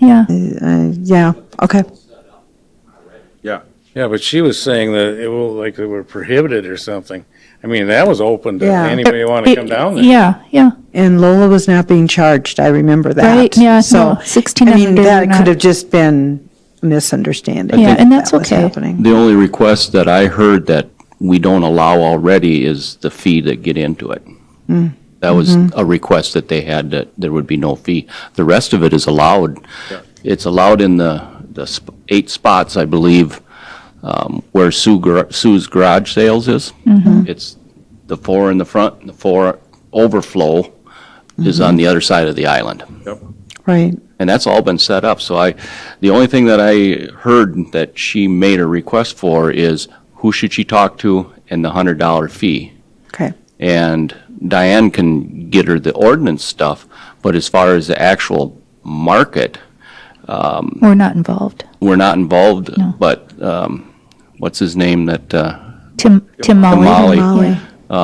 Yeah. Uh, yeah, okay. Yeah. Yeah, but she was saying that it will, like, it were prohibited or something. I mean, that was open to Yeah. anybody want to come down there. Yeah, yeah. And Lola was not being charged, I remember that. Right, yeah, So, no, 16 I mean, under that not- could have just been a misunderstanding. Yeah, and that's that was okay. happening. The only request that I heard that we don't allow already is the fee that get into it. That was a request that they had, that there would be no fee. The rest of it is allowed. It's allowed in the, the sp- eight spots, I believe, um, where Sue Gar- Sue's garage sales is. It's the four in the front, and the four overflow is on the other side of the island. Right. And that's all been set up, so I, the only thing that I heard that she made a request for is who should she talk to and the hundred dollar fee. Okay. And Diane can get her the ordinance stuff, but as far as the actual market, We're not involved. we're not involved, but, um, what's his name that, uh, Tim, Tim Molly. Molly. Molly. Yeah,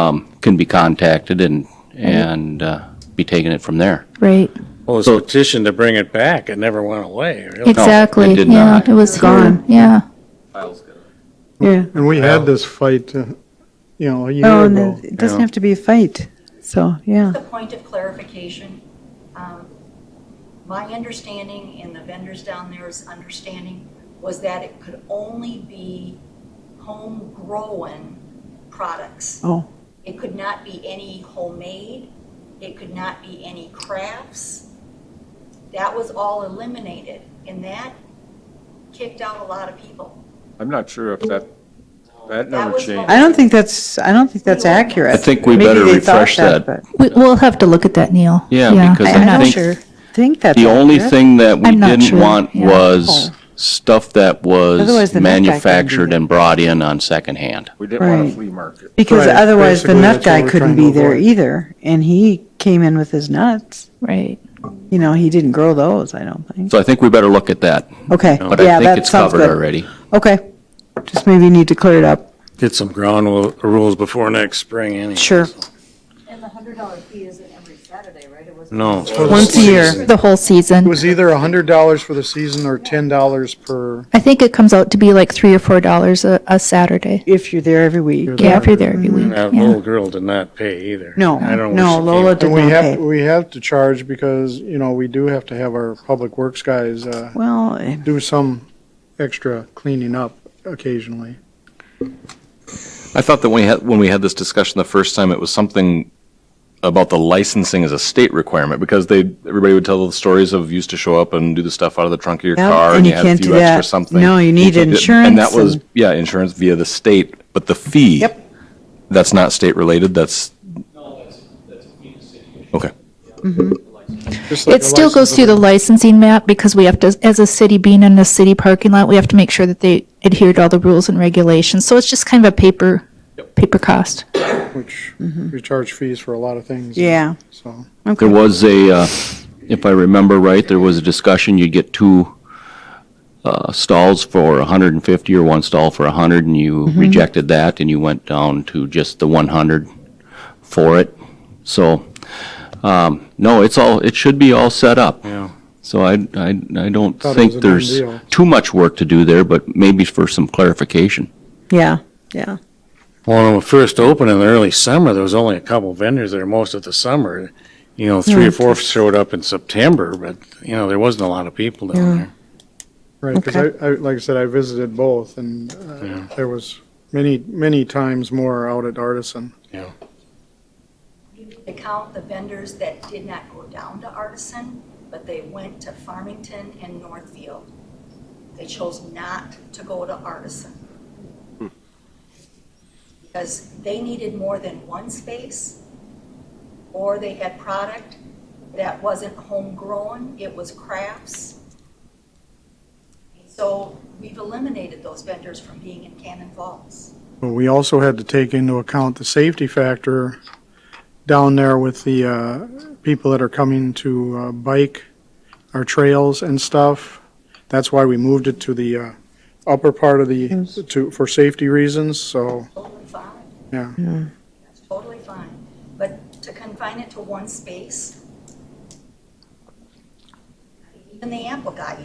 um, can be contacted and, and, uh, be taking it from there. Right, Well, it's petition to bring it back. It never went away, really. exactly. it did Yeah, not. It was Gone. gone, yeah. Yeah. And we had this fight, uh, you know, Oh, a year and ago. it- it doesn't have to be a fight. So, yeah. Just a point of clarification. Um, My understanding and the vendors down there's understanding was that it could only be homegrown products. Oh. It could not be any homemade, it could not be any crafts. That was all eliminated, and that kicked out a lot of people. I'm not sure if that, that That never was changed. I don't think that's, I don't think that's accurate. I think we Maybe better they thought refresh that. but We, we'll have to look at that, Neil. Yeah, because I'm I not think- sure. I Think that's The only accurate. thing that we I'm not didn't sure, want yeah. was stuff that Oh. Otherwise, the nut was guy couldn't do manufactured that. and brought in on secondhand. We didn't want Right. a flea market. Because Right, otherwise, the nut basically, that's what guy we're couldn't trying to be there avoid. either, and he came in with his nuts. Right. You know, he didn't grow those, I don't think. So I think we better look at that, Okay, but yeah, I think that it's sounds covered good. already. Okay, just maybe need to clear it up. Get some ground wo- rules before next spring, anyway. Sure. And the hundred dollar fee isn't every Saturday, right? It was. No. Once a year. The whole It season. was either a hundred dollars for the season or ten dollars per, I think it comes out to be like three or four dollars a, a Saturday. If you're there every week. Yeah, if you're there every week, That yeah. little girl did not pay either. No, I don't no, wish she Lola came. did and we not have, pay. we have to charge because, you know, we do have to have our public works guys, uh, Well, eh, do some extra cleaning up occasionally. I thought that when we had, when we had this discussion the first time, it was something about the licensing as a state requirement because they everybody would tell the stories of you used to show up and do the stuff out of the trunk of your Yep, car and you had can't a few do that. extra something. No, you need can't do- insurance And that was and- yeah, insurance via the state, but the fee. Yep. That's not state related. That's okay. Just like It a still goes license through the licensing map because we have to, as a city being in a city parking lot, we have to make sure that they adhere to all the rules and regulations. So it's just kind of a paper, paper cost. of- Which, we charge fees for a lot of things. Mm-hmm. yeah, So, okay. There was a, uh, if I remember right, there was a discussion, you'd get two uh, stalls for 150 or one stall for 100, and you rejected that, and you went down to just the 100 for it. So, um, no, it's all, it should be all set up. Yeah. So I, I, I don't Thought it was a think done there's deal. too much work to do there, but maybe for some clarification. Yeah, yeah, Well, when we first opened in the early summer, there was only a couple vendors there most of the summer. You know, three Yeah. or four showed up in September, but, you know, there wasn't a lot of people down there. right, because Okay. I, I, like I said, I visited both and uh, there was many, many times more out at Artisan. To count the vendors that did not go down to Artisan, but they went to Farmington and Northfield. They chose not to go to Artisan. Because they needed more than one space, or they had product that wasn't homegrown, it was crafts. So we've eliminated those vendors from being in Cannon Falls. But we also had to take into account the safety factor down there with the uh, people that are coming to uh, bike our trails and stuff. That's why we moved it to the uh, upper part of the, to, for safety reasons, so, Totally fine. yeah. That's totally fine, but to confine it to one space, And the apple guy,